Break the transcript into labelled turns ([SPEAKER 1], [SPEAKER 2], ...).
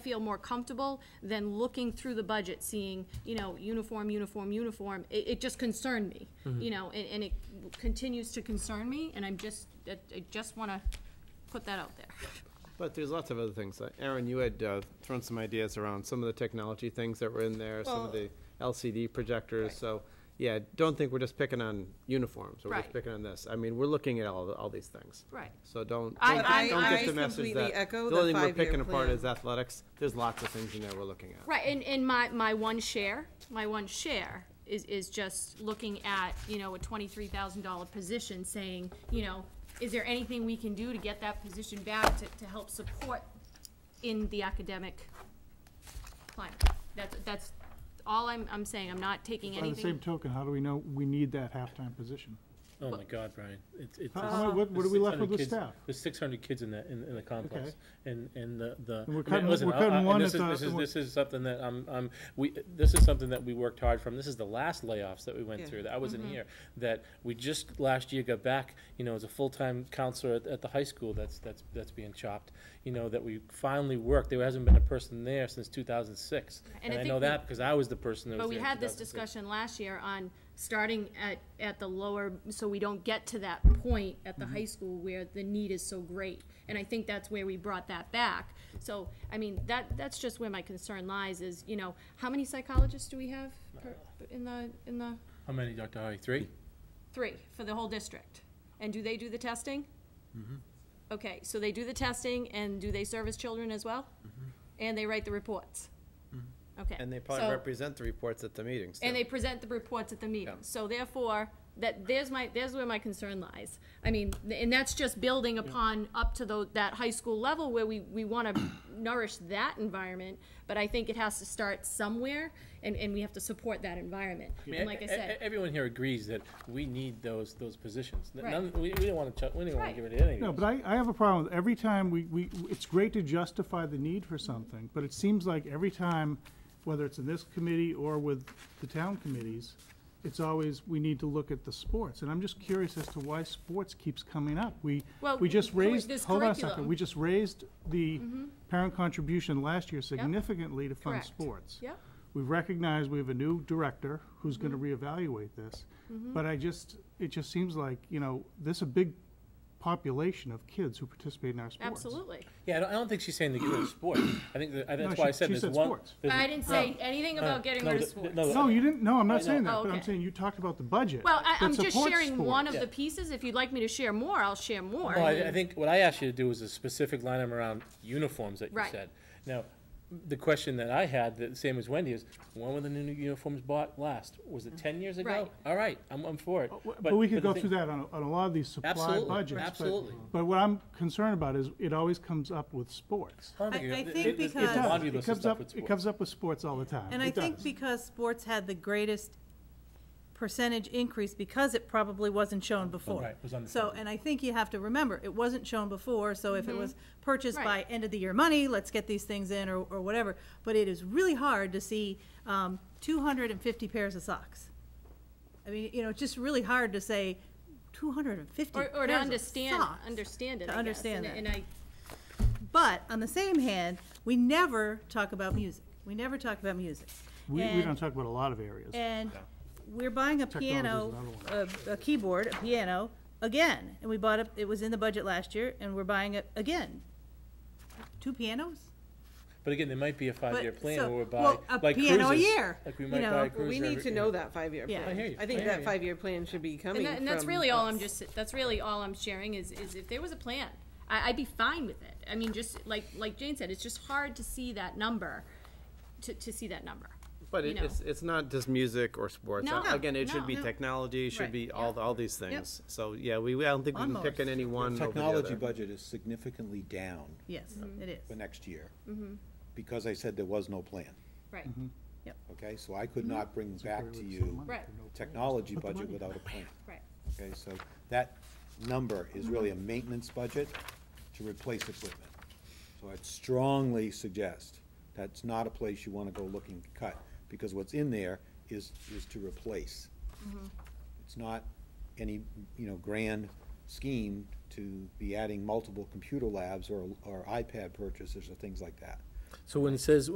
[SPEAKER 1] feel more comfortable than looking through the budget, seeing, you know, uniform, uniform, uniform. It, it just concerned me, you know, and, and it continues to concern me, and I'm just, I I just want to put that out there.
[SPEAKER 2] But there's lots of other things. Like, Aaron, you had uh, thrown some ideas around some of the technology things that were in there, some of
[SPEAKER 1] Well-
[SPEAKER 2] the LCD projectors.
[SPEAKER 1] Right.
[SPEAKER 2] So, yeah, don't think we're just picking on uniforms. We're
[SPEAKER 1] Right.
[SPEAKER 2] just picking on this. I mean, we're looking at all, all these things.
[SPEAKER 1] Right.
[SPEAKER 2] So don't,
[SPEAKER 1] I-
[SPEAKER 2] don't,
[SPEAKER 1] I-
[SPEAKER 2] don't
[SPEAKER 1] I
[SPEAKER 2] get the message
[SPEAKER 3] completely
[SPEAKER 2] that
[SPEAKER 3] echo
[SPEAKER 2] the
[SPEAKER 3] the
[SPEAKER 2] only thing we're
[SPEAKER 3] five-year
[SPEAKER 2] picking apart
[SPEAKER 3] plan.
[SPEAKER 2] is athletics. There's lots of things in there we're looking at.
[SPEAKER 1] Right, and, and my, my one share, my one share is, is just looking at, you know, a twenty-three thousand dollar position, saying, you know, is there anything we can do to get that position back to, to help support in the academic climate? That's, that's all I'm, I'm saying, I'm not taking
[SPEAKER 4] By the same
[SPEAKER 1] anything,
[SPEAKER 4] token, how do we know we need that halftime position?
[SPEAKER 5] Oh my God, Brian, it's, it's.
[SPEAKER 4] How- how- what- what are we left with with staff?
[SPEAKER 5] There's six hundred kids in the, in, in the complex, and, and the, the.
[SPEAKER 4] And we're
[SPEAKER 5] I mean,
[SPEAKER 4] cutting-
[SPEAKER 5] listen,
[SPEAKER 4] we're
[SPEAKER 5] I-
[SPEAKER 4] cutting
[SPEAKER 5] I- and
[SPEAKER 4] one
[SPEAKER 5] this
[SPEAKER 4] at
[SPEAKER 5] is-
[SPEAKER 4] the-
[SPEAKER 5] This is,
[SPEAKER 4] we're-
[SPEAKER 5] this is something that I'm, I'm, we, this is something that we worked hard from, this is the last layoffs that we went
[SPEAKER 3] Yeah.
[SPEAKER 5] through, that I wasn't
[SPEAKER 1] Mm-hmm.
[SPEAKER 5] here. That we just last year got back, you know, as a full-time counselor at, at the high school that's, that's, that's being chopped. You know, that we finally worked, there hasn't been a person there since two thousand six,
[SPEAKER 1] And I
[SPEAKER 5] and I
[SPEAKER 1] think
[SPEAKER 5] know
[SPEAKER 1] we-
[SPEAKER 5] that because I was the person that was
[SPEAKER 1] but we
[SPEAKER 5] there in
[SPEAKER 1] had this
[SPEAKER 5] 2006.
[SPEAKER 1] discussion last year on starting at, at the lower, so we don't get to that point at the high school where the need is so great. And I think that's where we brought that back. So, I mean, that, that's just where my concern lies is, you know, how many psychologists do we have per- in the, in the,
[SPEAKER 5] How many, Dr. Holly, three?
[SPEAKER 1] three for the whole district? And do they do the testing? Okay, so they do the testing and do they service children as well? And they write the reports? Okay.
[SPEAKER 2] And they probably
[SPEAKER 1] so-
[SPEAKER 2] represent the reports at the meetings.
[SPEAKER 1] and
[SPEAKER 2] too.
[SPEAKER 1] they present the reports at the meeting.
[SPEAKER 2] Yeah.
[SPEAKER 1] So therefore, that, there's my, there's where my concern lies. I mean, and that's just building upon up to tho, that high school level where we, we wanna nourish that environment, but I think it has to start somewhere, and, and we have to support that environment.
[SPEAKER 5] mean,
[SPEAKER 1] And like
[SPEAKER 5] e-
[SPEAKER 1] I
[SPEAKER 5] e-
[SPEAKER 1] said,
[SPEAKER 5] Everyone here agrees that we need those, those positions. N-
[SPEAKER 1] Right.
[SPEAKER 5] None, we, we don't wanna, ch- we don't wanna
[SPEAKER 1] Right.
[SPEAKER 5] give it to any
[SPEAKER 4] No,
[SPEAKER 5] of
[SPEAKER 4] but
[SPEAKER 5] those.
[SPEAKER 4] I, I have a problem with every time we, we, it's great to justify the need for something, but it seems like every time, whether it's in this committee or with the town committees, it's always, we need to look at the sports, and I'm just curious as to why sports keeps coming up. We,
[SPEAKER 1] Well,
[SPEAKER 4] we just
[SPEAKER 1] cur-
[SPEAKER 4] raised,
[SPEAKER 1] this
[SPEAKER 4] hold on a
[SPEAKER 1] curriculum. Mm-hmm.
[SPEAKER 4] second, we just raised the parent contribution last year significantly to fund
[SPEAKER 1] Correct.
[SPEAKER 4] sports.
[SPEAKER 1] Yep.
[SPEAKER 4] We've recognized we have a new director who's gonna
[SPEAKER 1] Mm-hmm.
[SPEAKER 4] reevaluate this, but I just, it just seems like, you know, this is a big population of kids who participate in our sports.
[SPEAKER 1] absolutely.
[SPEAKER 5] Yeah, I don't, I don't think she's saying to get rid of sports. I think, that- I-
[SPEAKER 4] No,
[SPEAKER 5] that's why I
[SPEAKER 4] she-
[SPEAKER 5] said
[SPEAKER 4] she
[SPEAKER 5] there's
[SPEAKER 4] said
[SPEAKER 5] one.
[SPEAKER 4] sports.
[SPEAKER 5] there's-
[SPEAKER 1] I didn't say anything about getting
[SPEAKER 5] uh, no,
[SPEAKER 1] rid of
[SPEAKER 5] th- th-
[SPEAKER 1] sports.
[SPEAKER 5] no,
[SPEAKER 4] No, you didn't, no, I'm not saying
[SPEAKER 1] Oh,
[SPEAKER 4] that, but I'm
[SPEAKER 1] okay.
[SPEAKER 4] saying you talked about the budget.
[SPEAKER 1] Well, I, I'm
[SPEAKER 4] that
[SPEAKER 1] just
[SPEAKER 4] supports
[SPEAKER 1] sharing one of
[SPEAKER 4] sports.
[SPEAKER 1] the pieces. If you'd like me to share more, I'll share more.
[SPEAKER 5] Well, I, I think what I asked you to do was a specific line item around uniforms that you
[SPEAKER 1] Right.
[SPEAKER 5] said. Now, the question that I had, the same as Wendy, is when were the new uniforms bought last? Was it ten years ago?
[SPEAKER 1] Right.
[SPEAKER 5] All right, I'm, I'm for it.
[SPEAKER 4] W- But we could
[SPEAKER 5] the
[SPEAKER 4] go
[SPEAKER 5] thing-
[SPEAKER 4] through that on, a- on a lot of these supply
[SPEAKER 5] Absolutely,
[SPEAKER 4] budgets. but-
[SPEAKER 5] absolutely.
[SPEAKER 4] But what I'm concerned about is it always comes up with sports.
[SPEAKER 5] I don't
[SPEAKER 3] I- I
[SPEAKER 5] th-
[SPEAKER 3] think
[SPEAKER 5] th- there's- there's
[SPEAKER 4] It
[SPEAKER 5] a
[SPEAKER 3] because-
[SPEAKER 5] laundry
[SPEAKER 4] does.
[SPEAKER 5] list
[SPEAKER 4] It
[SPEAKER 5] of
[SPEAKER 4] comes
[SPEAKER 5] stuff
[SPEAKER 4] up,
[SPEAKER 5] with
[SPEAKER 4] it
[SPEAKER 5] sports.
[SPEAKER 4] comes up with sports all the time.
[SPEAKER 3] And
[SPEAKER 4] It
[SPEAKER 3] I think
[SPEAKER 4] does.
[SPEAKER 3] because sports had the greatest percentage increase, because it probably wasn't shown before.
[SPEAKER 5] Oh, Right, it was
[SPEAKER 3] So,
[SPEAKER 5] underfunded.
[SPEAKER 3] and I think you have to remember, it wasn't shown before, so if it was purchased by
[SPEAKER 1] Mm-hmm. Right.
[SPEAKER 3] end of the year money, let's get these things in, or, or whatever. But it is really hard to see, um, two hundred and fifty pairs of socks. I mean, you know, it's just really hard to say, two hundred and fifty
[SPEAKER 1] Or,
[SPEAKER 3] pairs of socks.
[SPEAKER 1] or to understand, understand it,
[SPEAKER 3] To
[SPEAKER 1] I guess.
[SPEAKER 3] understand
[SPEAKER 1] And-
[SPEAKER 3] that.
[SPEAKER 1] And I,
[SPEAKER 3] But on the same hand, we never talk about music. We never talk about music.
[SPEAKER 4] We, we
[SPEAKER 3] And-
[SPEAKER 4] don't talk about a lot of areas.
[SPEAKER 3] And we're buying a
[SPEAKER 4] Technology's
[SPEAKER 3] piano,
[SPEAKER 4] another
[SPEAKER 3] a, a keyboard, a piano, again. And we bought it, it was in the budget last year, and we're buying it again. Two pianos?
[SPEAKER 5] But again, there might be a five-year
[SPEAKER 3] But,
[SPEAKER 5] plan
[SPEAKER 3] so-
[SPEAKER 5] where we buy,
[SPEAKER 3] well, a
[SPEAKER 5] like
[SPEAKER 3] piano a
[SPEAKER 5] cruises,
[SPEAKER 3] year,
[SPEAKER 5] like we
[SPEAKER 3] you
[SPEAKER 5] might
[SPEAKER 3] know.
[SPEAKER 5] buy a
[SPEAKER 3] Well,
[SPEAKER 6] Well,
[SPEAKER 5] cruiser.
[SPEAKER 6] we need
[SPEAKER 5] every-
[SPEAKER 6] to know that five-year
[SPEAKER 3] Yeah.
[SPEAKER 5] hear
[SPEAKER 3] I
[SPEAKER 6] plan.
[SPEAKER 5] you.
[SPEAKER 6] I
[SPEAKER 5] I
[SPEAKER 6] think
[SPEAKER 5] hear
[SPEAKER 6] that
[SPEAKER 5] you.
[SPEAKER 6] five-year plan should be coming
[SPEAKER 1] And
[SPEAKER 6] from.
[SPEAKER 1] that- and that's really all I'm just, that's really all I'm sharing is, is if there was a plan, I, I'd be fine with it. I mean, just like, like Jane said, it's just hard to see that number, to, to see that number.
[SPEAKER 2] But
[SPEAKER 1] you
[SPEAKER 2] it,
[SPEAKER 1] know.
[SPEAKER 2] it's, it's not just music or sports.
[SPEAKER 1] No,
[SPEAKER 2] Uh, Again, it should
[SPEAKER 1] no,
[SPEAKER 2] be
[SPEAKER 1] no.
[SPEAKER 2] technology, it
[SPEAKER 3] Right,
[SPEAKER 2] should be all, all these things. So, yeah, we, we- I don't think we can pick
[SPEAKER 3] Lawnmowers.
[SPEAKER 2] on any one
[SPEAKER 7] The
[SPEAKER 2] over the
[SPEAKER 7] technology
[SPEAKER 2] other.
[SPEAKER 7] budget is significantly down
[SPEAKER 3] Yes, it
[SPEAKER 7] for
[SPEAKER 3] is.
[SPEAKER 7] next year. Because I said there was no plan,
[SPEAKER 1] Right,
[SPEAKER 7] okay? So I could not bring back to you
[SPEAKER 1] right,
[SPEAKER 7] technology budget without a plan,
[SPEAKER 1] right.
[SPEAKER 7] okay? So that number is really a maintenance budget to replace equipment. So I'd strongly suggest that's not a place you wanna go looking to cut, because what's in there is, is to replace. It's not any, you know, grand scheme to be adding multiple computer labs or, or iPad purchases or things like that.
[SPEAKER 5] So when it says